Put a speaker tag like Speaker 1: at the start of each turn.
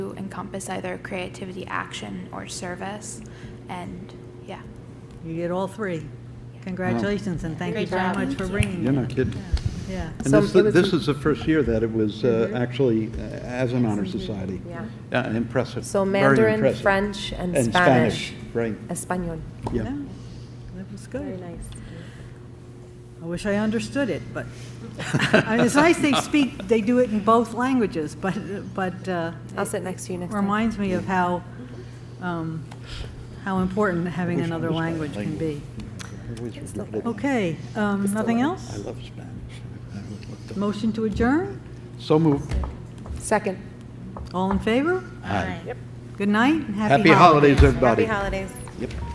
Speaker 1: encompass either creativity, action, or service. And yeah.
Speaker 2: You get all three. Congratulations, and thank you
Speaker 3: Great
Speaker 2: very
Speaker 3: job.
Speaker 2: much for bringing
Speaker 4: You're
Speaker 2: it.
Speaker 4: not kidding.
Speaker 2: Yeah.
Speaker 4: And
Speaker 3: Some-
Speaker 4: this,
Speaker 3: it was
Speaker 4: this
Speaker 3: some- Mm-hmm.
Speaker 4: is the first year that it was uh, actually uh, as an honor society.
Speaker 3: Yeah.
Speaker 4: Uh, Impressive.
Speaker 3: So
Speaker 4: very
Speaker 3: Mandarin,
Speaker 4: impressive.
Speaker 3: French, and
Speaker 4: And
Speaker 3: Spanish.
Speaker 4: Spanish, right,
Speaker 3: Espanol.
Speaker 4: yeah.
Speaker 2: That was
Speaker 3: Very
Speaker 2: good.
Speaker 3: nice.
Speaker 2: I wish I understood it, but, I mean, it's nice they speak, they do it in both languages, but, but uh,
Speaker 3: I'll sit next to you next time.
Speaker 2: reminds me of how, um, how important having
Speaker 4: Wish I
Speaker 2: another
Speaker 4: was that
Speaker 2: language can be.
Speaker 4: I always regretted it.
Speaker 2: Okay, um, nothing
Speaker 4: I
Speaker 2: else?
Speaker 4: love Spanish.
Speaker 2: Motion to adjourn?
Speaker 4: So moved.
Speaker 3: Second.
Speaker 2: All in favor?
Speaker 4: Aye.
Speaker 2: Good night and happy holidays.
Speaker 4: Happy holidays, everybody.
Speaker 3: Happy holidays.
Speaker 4: Yep.